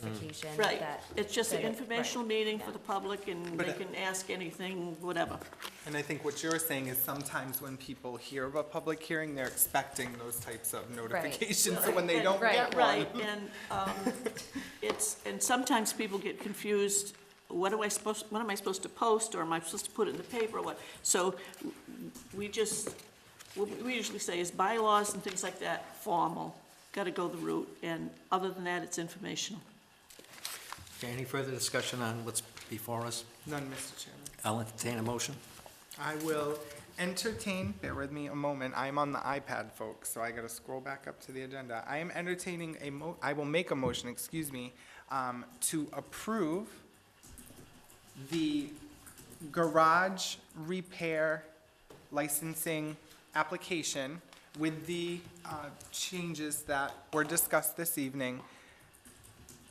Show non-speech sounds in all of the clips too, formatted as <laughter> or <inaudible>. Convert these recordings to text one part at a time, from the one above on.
notification Right, that. it's just an that it- informational right. meeting for Yeah. the public, and But they it- can ask anything, whatever. And I think what you're saying is sometimes when people hear of a public hearing, they're expecting those types of notifications. <laughs> So when they And- don't Right. get yeah, one, Right, and <laughs> um, it's, and sometimes people get confused, what do I supposed, what am I supposed to post, or am I supposed to put it in the paper, or what? So we just, what we usually say is bylaws and things like that, formal, gotta go the route, and other than that, it's informational. Okay, any further discussion on what's before us? none, Mr. Chairman. I'll entertain a motion. I will entertain, bear with me a moment, I'm on the iPad, folks, so I gotta scroll back up to the agenda. I am entertaining a mo, I will make a motion, excuse me, um, to approve the garage repair licensing application with the, uh, changes that were discussed this evening,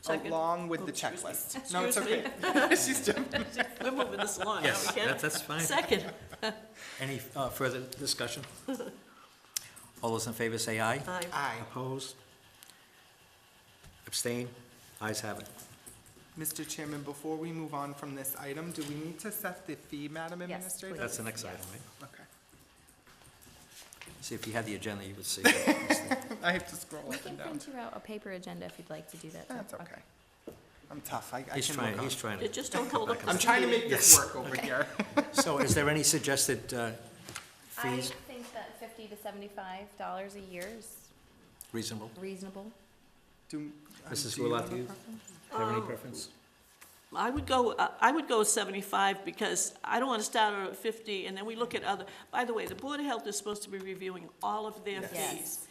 Second. along with the Oops, excuse me. <laughs> checklist. No, it's Excuse okay. me. <laughs> She's jumping. We're moving this along, are Yes, we, Ken? that- that's fine. Second, Any uh, further discussion? All those in favor say aye. Aye. Aye. Opposed? Abstain? Ayes have it. Mr. Chairman, before we move on from this item, do we need to set the fee, Madam Yes, Administrator? please. That's the next item, right? Okay. <laughs> See, if you had the agenda, you would see. I have to scroll We up can and down. print you out a paper agenda if you'd like to do that. too. That's okay. I'm tough. I, I can work on He's trying, he's it. trying Yeah, to. just don't hold up. I'm trying to make this Yes. work over here. So is there any suggested uh, I fees think that fifty to seventy-five dollars a year is reasonable? reasonable. Do- um, Mrs. do you Gulati, have a you- preference? Have any preference? I would go, uh, I would go with seventy-five, because I don't wanna start out at fifty, and then we look at other, by the way, the Board of Health is supposed to be reviewing all of their Yes. Yes. fees.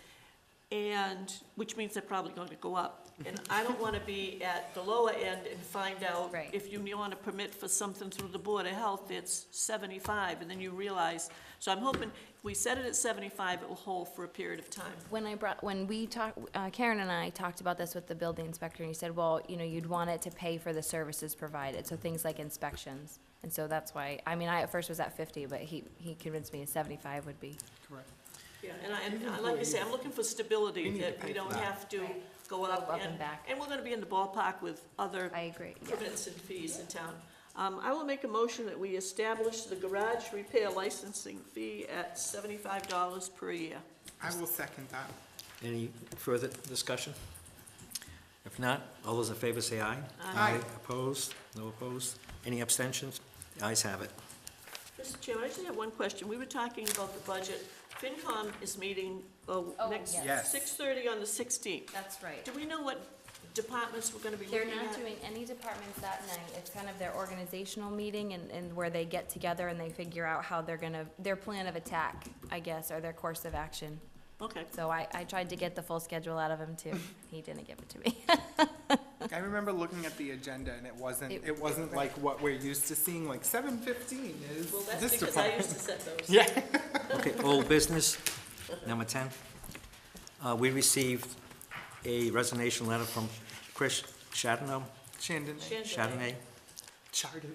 And, which means they're probably gonna go up, and I don't wanna be at the lower end and find out Right. if you want to permit for something through the Board of Health, it's seventy-five, and then you realize, so I'm hoping, if we set it at seventy-five, it will hold for a period of time. When I brought, when we talked, uh, Karen and I talked about this with the building inspector, and he said, well, you know, you'd want it to pay for the services provided, so things like inspections. And so that's why, I mean, I at first was at fifty, but he, he convinced me seventy-five would be. Correct. Yeah, and I, and I- like I say, I'm looking for stability, We need to that pay we for don't that. have to go up Go up and, and back. and we're gonna be in the ballpark with other I agree, yeah. permits and fees in town. Um, I will make a motion that we establish the garage repair licensing fee at seventy-five dollars per year. I will second that. Any further discussion? If not, all those in favor say aye. Aye. Opposed? No opposed? Any abstentions? The ayes have it. Mr. Chairman, I just have one question. We were talking about the budget. FinCom is meeting, oh, Oh, next, yes. Yes. six-thirty on the sixteenth. That's right. Do we know what departments we're gonna be They're looking at? not doing any departments that night. It's kind of their organizational meeting and, and where they get together and they figure out how they're gonna, their plan of attack, I guess, or their course of action. Okay. So I, I tried to get the full schedule out of him <laughs> too. He didn't give it to me. <laughs> I remember looking at the agenda and it wasn't, It- it wasn't like what we're used to seeing, like seven fifteen is Well, that's this because I department. used to set those. Yeah. Okay, old business, number 10. Uh, We received a resignation letter from Chris Chardonnay, Chandon, Chan- Chardonnay, Chardon.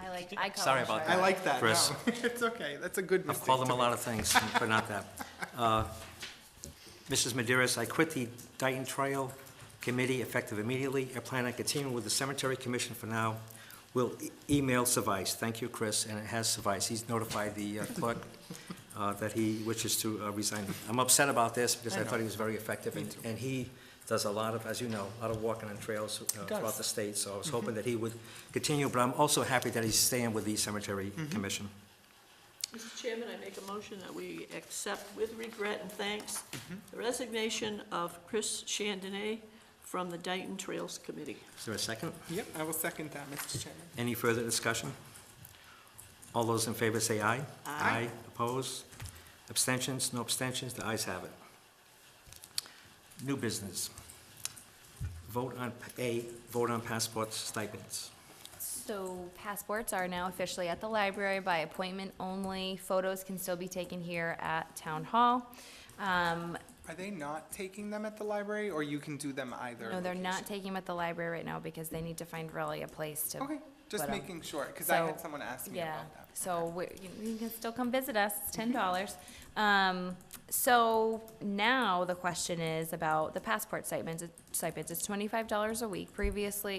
I like, I call Sorry him about Shark. <laughs> I like that, no. <laughs> Chris. It's okay. That's a good I've mistake. called them to a lot of things, but not that. Uh, Mrs. Maderas, I quit the Dayton Trail Committee effective immediately. I plan on continuing with the Cemetery Commission for now. Will e- email suffice. Thank you, Chris, and it has sufficed. He's notified the uh, clerk uh, that he wishes to uh, resign. I'm upset about this because I thought he was very effective, and- and he does a lot of, as you know, a lot of walking on trails uh, throughout the state, so I was hoping that he would continue, but I'm also happy that he's staying with the Cemetery Commission. Mr. Chairman, I make a motion that we accept with regret and thanks the resignation of Chris Chandonnet from the Dayton Trails Committee. Is there a second? Yep, I will second that, Mr. Chairman. Any further discussion? All those in favor say aye. Aye. Opposed? Abstentions? No abstentions? The ayes have it. New business. Vote on, A, vote on passport stipends. So passports are now officially at the library by appointment only. Photos can still be taken here at Town Hall. Um, Are they not taking them at the library, or you can do them either? no, they're location? not taking them at the library right now because they need to find really a place to Okay. Just But, um, making sure, because I had so- someone ask me Yeah, about that. so we- you you can still come visit us, it's ten dollars. Um, so now the question is about the passport stipends, stipends, it's twenty-five dollars a week. Previously,